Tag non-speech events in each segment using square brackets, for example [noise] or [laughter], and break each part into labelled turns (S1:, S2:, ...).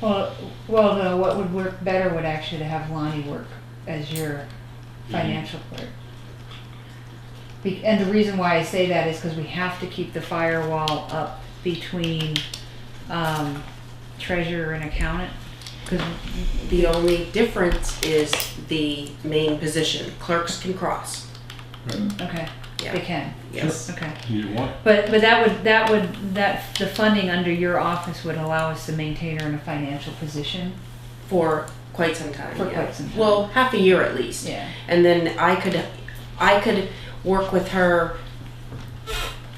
S1: Well, well, no, what would work better would actually to have Lonnie work as your financial clerk. Be- And the reason why I say that is because we have to keep the firewall up between um, treasurer and accountant. Because,
S2: The only difference is the main position. Clerks can cross.
S1: okay,
S2: Yeah.
S1: they can,
S2: Yes.
S1: okay.
S3: You want,
S1: But, but that would, that would, that, the funding under your office would allow us to maintain her in a financial position.
S2: For quite some time.
S1: For
S2: yeah.
S1: quite some time.
S2: Well, half a year at least.
S1: Yeah.
S2: And then I could, I could work with her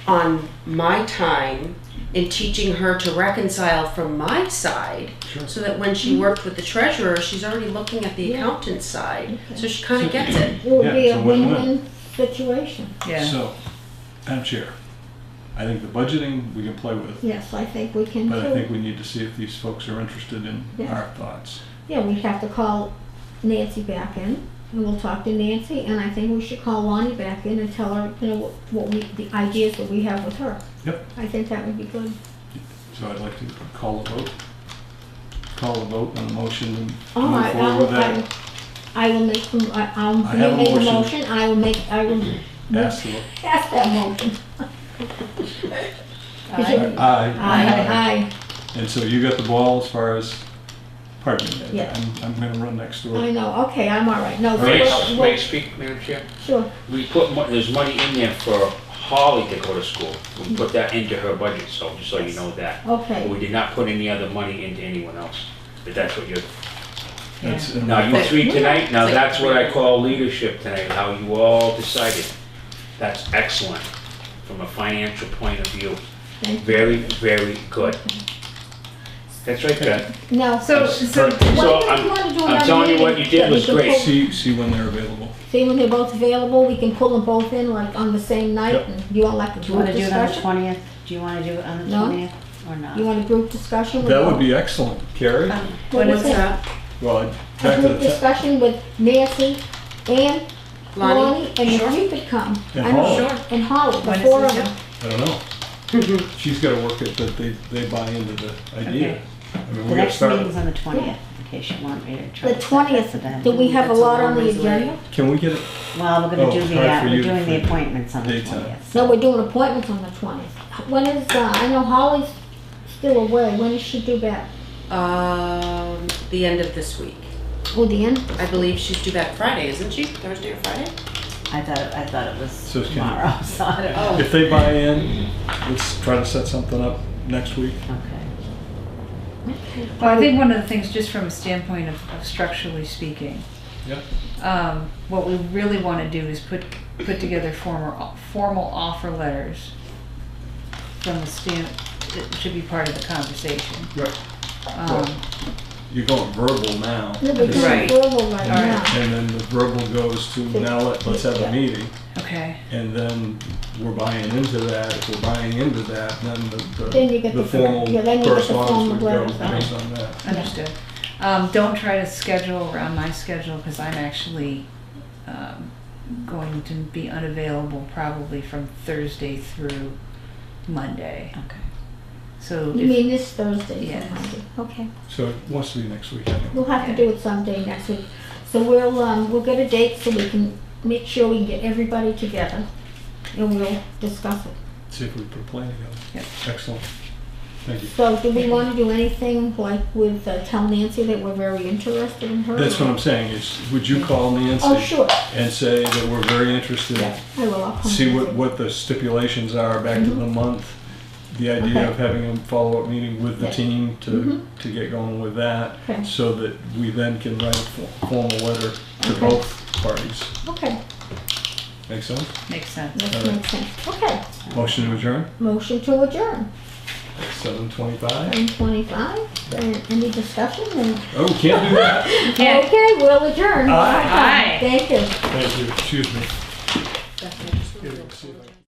S2: on my time in teaching her to reconcile from my side
S3: sure.
S2: so that when
S1: Mm-hmm.
S2: she worked with the treasurer, she's already looking at the accountant's side. So she kind of gets it.
S4: It would
S3: Yeah,
S4: be
S3: it's
S4: a
S3: a win-win.
S4: win-win situation.
S1: Yeah,
S3: So, Madam Chair, I think the budgeting we can play with,
S4: Yes, I think we can
S3: but I think
S4: too.
S3: we need to see if these folks are interested in
S4: Yeah.
S3: our thoughts.
S4: Yeah, we have to call Nancy back in and we'll talk to Nancy and I think we should call Lonnie back in and tell her, you know, what- what we, the ideas that we have with her.
S3: Yep.
S4: I think that would be good.
S3: So I'd like to call a vote. Call a vote on a motion and
S4: All
S3: move
S4: right,
S3: forward with
S4: I'll,
S3: that.
S4: Oh, I, I will make, the- I- I'll
S3: I have a
S4: make a
S3: motion.
S4: motion, I will make, I will
S3: Ask the,
S4: pass that motion. Is it-
S3: aye.
S4: Aye,
S3: And so you got the ball as far as, pardon me,
S4: Yeah.
S3: I'm, I'm gonna run next
S4: aye, I
S3: door.
S4: know, okay, I'm all right, no,
S5: May I
S4: we'll-
S5: s-
S4: we'll-
S5: may I speak, Madam Chair?
S4: sure,
S5: We put, mo- there's money in there for Holly to go to school. We put that into her budget, so just so you know that. But
S4: okay.
S5: we did not put any other money into anyone else, but that's what you're,
S1: yeah.
S3: That's-
S5: now you
S2: But-
S5: three tonight, now
S2: It's like-
S5: that's what I call leadership tonight, how you all decided. That's excellent, from a financial point of view.
S4: Thank you.
S5: Very, very good. That's right, good.
S4: No,
S1: So, so,
S5: So I'm, I'm telling you what you did was great.
S3: See, see when they're available.
S4: See, when they're both available, we can pull them both in like on the same night
S3: Yep.
S4: and you want like a
S6: Do you want
S4: group
S6: to do it on the
S4: discussion?
S6: twentieth? Do you want to do it on the
S4: No.
S6: twentieth or not?
S4: You want a group discussion with?
S3: That would
S4: both-
S3: be excellent. Carrie?
S4: What
S2: What's
S4: is it?
S2: that?
S3: Well,
S4: A
S3: back to
S4: group
S3: the, ta-
S4: discussion with Nancy and
S2: Lonnie?
S4: Lonnie and if you could come.
S3: And
S4: I know-
S3: Holly.
S2: Sure.
S4: And Holly, the
S1: When is
S4: four
S1: this
S4: of them.
S3: I don't know.
S6: [laughs]
S3: She's gotta work it, but they, they buy into the idea.
S1: Okay.
S3: I mean,
S6: The
S3: we're gonna
S6: next
S3: start,
S6: meeting's on the twentieth, in case you want me to try.
S4: The
S6: to set
S4: twentieth,
S6: that for then.
S4: do we have a
S2: That's a
S4: lot
S2: long
S4: on the
S2: ways away.
S4: agenda?
S3: can we get it?
S6: Well, we're
S3: Oh,
S6: gonna do the,
S3: sorry
S6: uh,
S3: for you
S6: we're doing the
S3: for
S6: appointments on the
S3: daytime.
S6: twentieth.
S4: No, we're doing appointments on the twentieth. When is, uh, I know Holly's still away, when is she due back?
S2: Um, the end of this week.
S4: Oh, the end?
S2: I believe she's due back Friday, isn't she? Thursday or Friday?
S6: I thought, it- I thought it was
S3: So it's gonna-
S6: tomorrow, [laughs] so I don't know.
S3: If they buy in, let's try to set something up next week.
S6: Okay.
S1: Well, I think one of the things, just from a standpoint of, of structurally speaking,
S3: Yeah.
S1: um, what we really want to do is put, put together former, formal offer letters from the stand, it should be part of the conversation.
S3: Right.
S1: Um,
S3: You're going verbal now.
S4: No, we're doing
S2: Right.
S4: verbal
S1: All
S4: right
S1: right.
S4: now.
S3: And then the verbal goes to, now let- let's have a meeting.
S1: okay,
S3: And then we're buying into that, if we're buying into that, then the,
S4: Then you get
S3: the, the
S4: the-
S3: formal
S4: yeah, then you get the formal
S3: correspondence would go
S4: letters, right.
S3: based on that.
S1: understood. Um, don't try to schedule around my schedule, because I'm actually, um, going to be unavailable probably from Thursday through Monday.
S6: Okay.
S1: So
S4: You
S1: if,
S4: mean this Thursday?
S1: Yes.
S4: Monday. Okay,
S3: So it wants to be next week, I think.
S4: we'll have to do it someday next week. So we'll, um, we'll get a date so we can make sure we can get everybody together and we'll discuss it.
S3: see if we put a plan together.
S1: Yep.
S3: Excellent. Thank you.
S4: So do we wanna do anything like with, uh, tell Nancy that we're very interested in her?
S3: That's what I'm saying, is, would you call
S4: Oh,
S3: Nancy
S4: sure,
S3: and say that we're very interested?
S4: yeah, I will, I'll come.
S3: See what,
S4: visit.
S3: what the stipulations are back to
S4: Mm-hmm.
S3: the month, the idea of having a follow-up meeting with the
S4: Yeah. Mm-hmm.
S3: team to, to get going with that.
S4: Okay.
S3: So that we then can write a fo- formal letter to
S4: Okay.
S3: both parties.
S4: Okay,
S3: Make sense?
S1: makes sense.
S4: that
S3: All right.
S4: makes sense. Okay,
S3: Motion to adjourn,
S4: motion to adjourn,
S3: seven twenty-five.
S4: nine twenty-five, and any discussion and,
S3: Oh, can't do
S4: [laughs]
S3: that.
S1: Yeah.
S4: okay, we'll adjourn.
S3: Aye.
S1: Aye.
S4: Thank you.
S3: Thank you, excuse me. Here, see if I can-